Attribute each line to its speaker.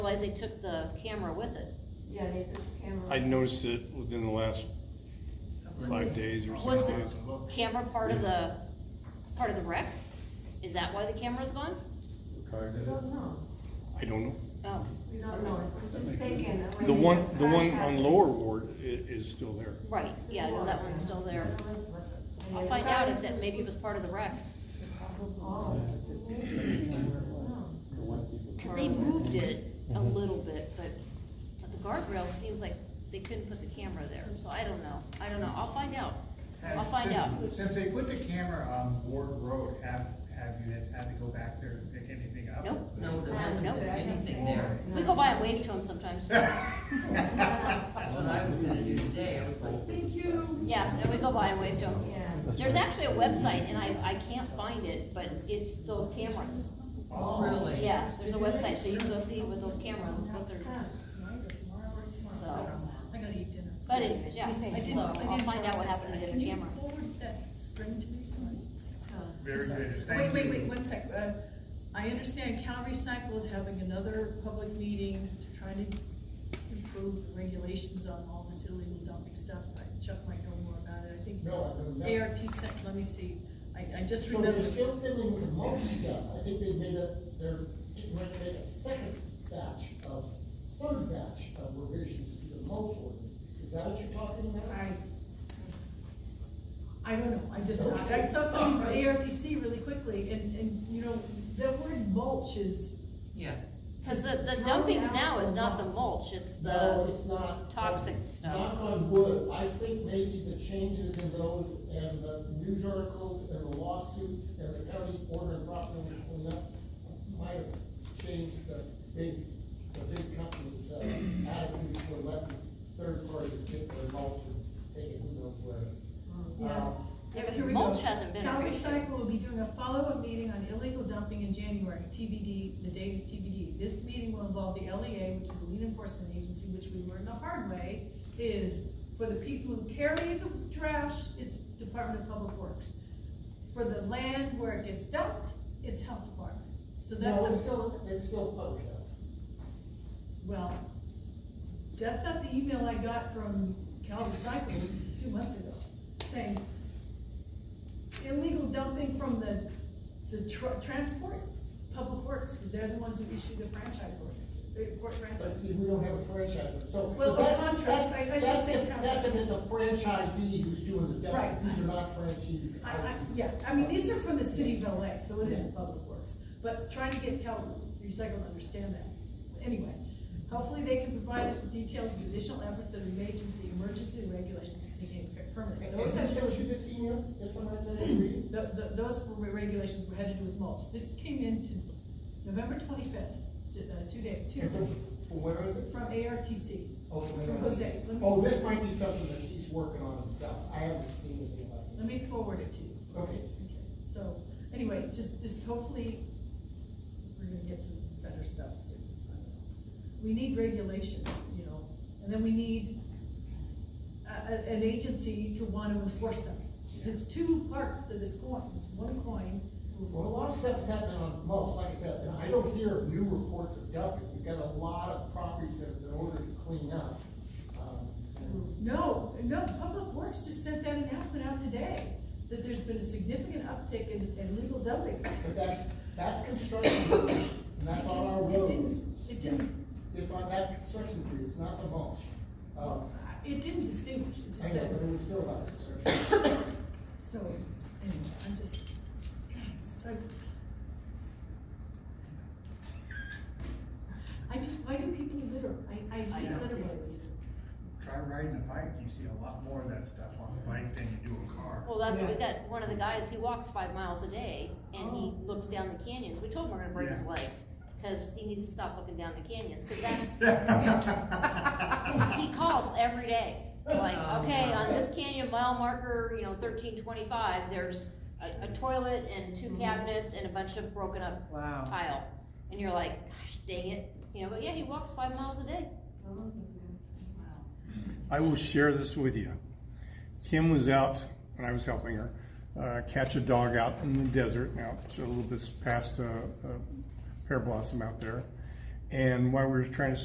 Speaker 1: realize they took the camera with it.
Speaker 2: Yeah, they put the camera.
Speaker 3: I noticed it within the last five days or
Speaker 1: Was
Speaker 3: six
Speaker 1: the
Speaker 3: days.
Speaker 1: camera part of the, part of the wreck? Is that why the camera's gone?
Speaker 2: We don't know,
Speaker 3: I don't know.
Speaker 1: Oh,
Speaker 2: we don't know, we're just thinking. that when
Speaker 3: The
Speaker 2: they
Speaker 3: one,
Speaker 2: got
Speaker 3: the
Speaker 2: crash
Speaker 3: one on
Speaker 2: out-
Speaker 3: Lower Ward i- is still there.
Speaker 1: right, yeah, no, that one's still there.
Speaker 2: That one's with it. And
Speaker 1: I'll
Speaker 2: they
Speaker 1: find
Speaker 2: got
Speaker 1: out
Speaker 2: it.
Speaker 1: if that, maybe it was part of the wreck,
Speaker 2: Oh, maybe. No.
Speaker 1: cause they moved it a little bit, but, but the guardrail seems like they couldn't put the camera there, so I don't know, I don't know, I'll find out. I'll find out.
Speaker 4: Since- Since they put the camera on Ward Road, have, have you had had to go back there and pick anything up?
Speaker 1: Nope.
Speaker 5: No, there
Speaker 2: Nope.
Speaker 5: wasn't anything there.
Speaker 1: We go by and wave to them sometimes.
Speaker 5: That's what I was gonna do today, I was like, thank you.
Speaker 1: Yeah, and we go by and wave to them.
Speaker 2: Yeah.
Speaker 1: There's actually a website, and I, I can't find it, but it's those cameras.
Speaker 5: Oh, really?
Speaker 1: Yeah, there's a website, so you can go see with those cameras, what they're,
Speaker 2: Huh.
Speaker 1: so.
Speaker 6: I gotta eat dinner.
Speaker 1: But anyways, yeah,
Speaker 6: I didn't-
Speaker 1: so
Speaker 6: I didn't
Speaker 1: I'll find out what
Speaker 6: process
Speaker 1: happened to the other
Speaker 6: that. Can you
Speaker 1: camera.
Speaker 6: Forward that string to me, sorry.
Speaker 4: Very good,
Speaker 6: Wait,
Speaker 4: thank you.
Speaker 6: wait, wait, one sec. Uh, I understand Calvary Cycle is having another public meeting to try to improve the regulations on all this illegal dumping stuff. I- Chuck might know more about it, I think.
Speaker 7: No, I don't know.
Speaker 6: ART sent, let me see, I, I just
Speaker 7: So they're
Speaker 6: remember.
Speaker 7: still filling with most stuff, I think they made a, they're getting ready to make a second batch of, third batch of revisions to the mulch ordinance, is that what you're talking about?
Speaker 6: I, I don't know, I just,
Speaker 7: Okay.
Speaker 6: I saw something from ARTC really quickly, and, and, you know, the word mulch is,
Speaker 5: Yeah.
Speaker 1: Cause the, the dumpings now is not the mulch, it's
Speaker 7: No,
Speaker 1: the,
Speaker 7: it's not.
Speaker 1: toxic stuff.
Speaker 7: Knock on wood, I think maybe the changes in those and the news articles and the lawsuits and the county order and property cleanup might have changed the big, the big companies' uh, attitude toward letting third parties get their mulch and take it who knows where.
Speaker 6: Yeah.
Speaker 7: Um,
Speaker 1: Yeah, 'cause
Speaker 6: Here we
Speaker 1: mulch
Speaker 6: go.
Speaker 1: hasn't been
Speaker 6: Calgary
Speaker 1: addressed.
Speaker 6: Cycle will be doing a follow-up meeting on illegal dumping in January, TBD, the date is TBD. This meeting will involve the LEA, which is the lead enforcement agency, which we learned the hard way, is for the people who carry the trash, it's Department of Public Works. For the land where it gets dumped, it's Health Department. So that's
Speaker 7: No,
Speaker 6: a.
Speaker 7: it's still, it's still public health.
Speaker 6: Well, that's not the email I got from Cal Recycle two months ago, saying illegal dumping from the, the tr- transport, public works, because they're the ones who issue the franchise ordinance, the for
Speaker 7: But
Speaker 6: franchise.
Speaker 7: see, we don't have a franchise, so.
Speaker 6: Well, the
Speaker 7: that's-
Speaker 6: contracts,
Speaker 7: that's-
Speaker 6: I- I should
Speaker 7: that's
Speaker 6: say
Speaker 7: if-
Speaker 6: contracts.
Speaker 7: That's if it's a franchisee who's doing the
Speaker 6: Right.
Speaker 7: dumping, these are not franchisees.
Speaker 6: I, I, yeah, I mean, these are from the city of LA, so it isn't public works, but trying to get Cal Recycle to understand that. Anyway, hopefully they can provide us with details of additional efforts that are made since the emergency regulations became
Speaker 7: And
Speaker 6: permanent.
Speaker 7: and who sent you this email, this one right there, you read?
Speaker 6: Th th those were regulations were had to do with mulch. This came in to November twenty-fifth, uh, two day, Tuesday,
Speaker 7: From where is it?
Speaker 6: from ARTC.
Speaker 7: Oh, from
Speaker 6: From Jose. Let me-
Speaker 7: Oh, this might be something that he's working on himself, I haven't seen anything
Speaker 6: Let
Speaker 7: like
Speaker 6: me forward it to you.
Speaker 7: this. Okay.
Speaker 6: So, anyway, just, just hopefully, we're gonna get some better stuff soon. I don't know. We need regulations, you know, and then we need a, a- an agency to want to enforce them. There's two parts to this coin, It's one coin.
Speaker 7: Well, a lot of stuff is happening on mulch, like I said, and I don't hear of new reports of dumping, we've got a lot of properties that have been ordered to clean up. Um, and-
Speaker 6: No, no, Public Works just sent that announcement out today, that there's been a significant uptick in, in legal dumping.
Speaker 7: But that's, that's construction, work, and that's on our
Speaker 6: It
Speaker 7: roads.
Speaker 6: didn't, it didn't,
Speaker 7: It's on, that's construction debris, it's not the mulch. Um,
Speaker 6: it didn't distinguish, it just
Speaker 7: I know, but it
Speaker 6: said,
Speaker 7: was still about construction.
Speaker 6: so, anyway, I'm just, God, it's so. I just, why do people litter? I, I hate
Speaker 4: Yeah.
Speaker 6: litterers.
Speaker 4: Try riding a bike, you see a lot more of that stuff on a bike than you do a car.
Speaker 1: Well, that's, we
Speaker 6: Yeah.
Speaker 1: got one of the guys, he walks five miles a day, and he
Speaker 7: Oh.
Speaker 1: looks down the canyons, we told him we're gonna break his
Speaker 4: Yeah.
Speaker 1: legs, cause he needs to stop looking down the canyons, cause that, he calls every day, like,
Speaker 5: Oh,
Speaker 1: okay,
Speaker 5: wow.
Speaker 1: on this canyon mile marker, you know, thirteen twenty-five, there's a, a toilet and two cabinets and a bunch of broken up
Speaker 5: Mm-hmm. Wow.
Speaker 1: tile, and you're like, gosh, dang it, you know, but yeah, he walks five miles a day.
Speaker 3: I will share this with you. Kim was out, and I was helping her, uh, catch a dog out in the desert, now, it's a little bit past, uh, uh, pear blossom out there. And why we were trying to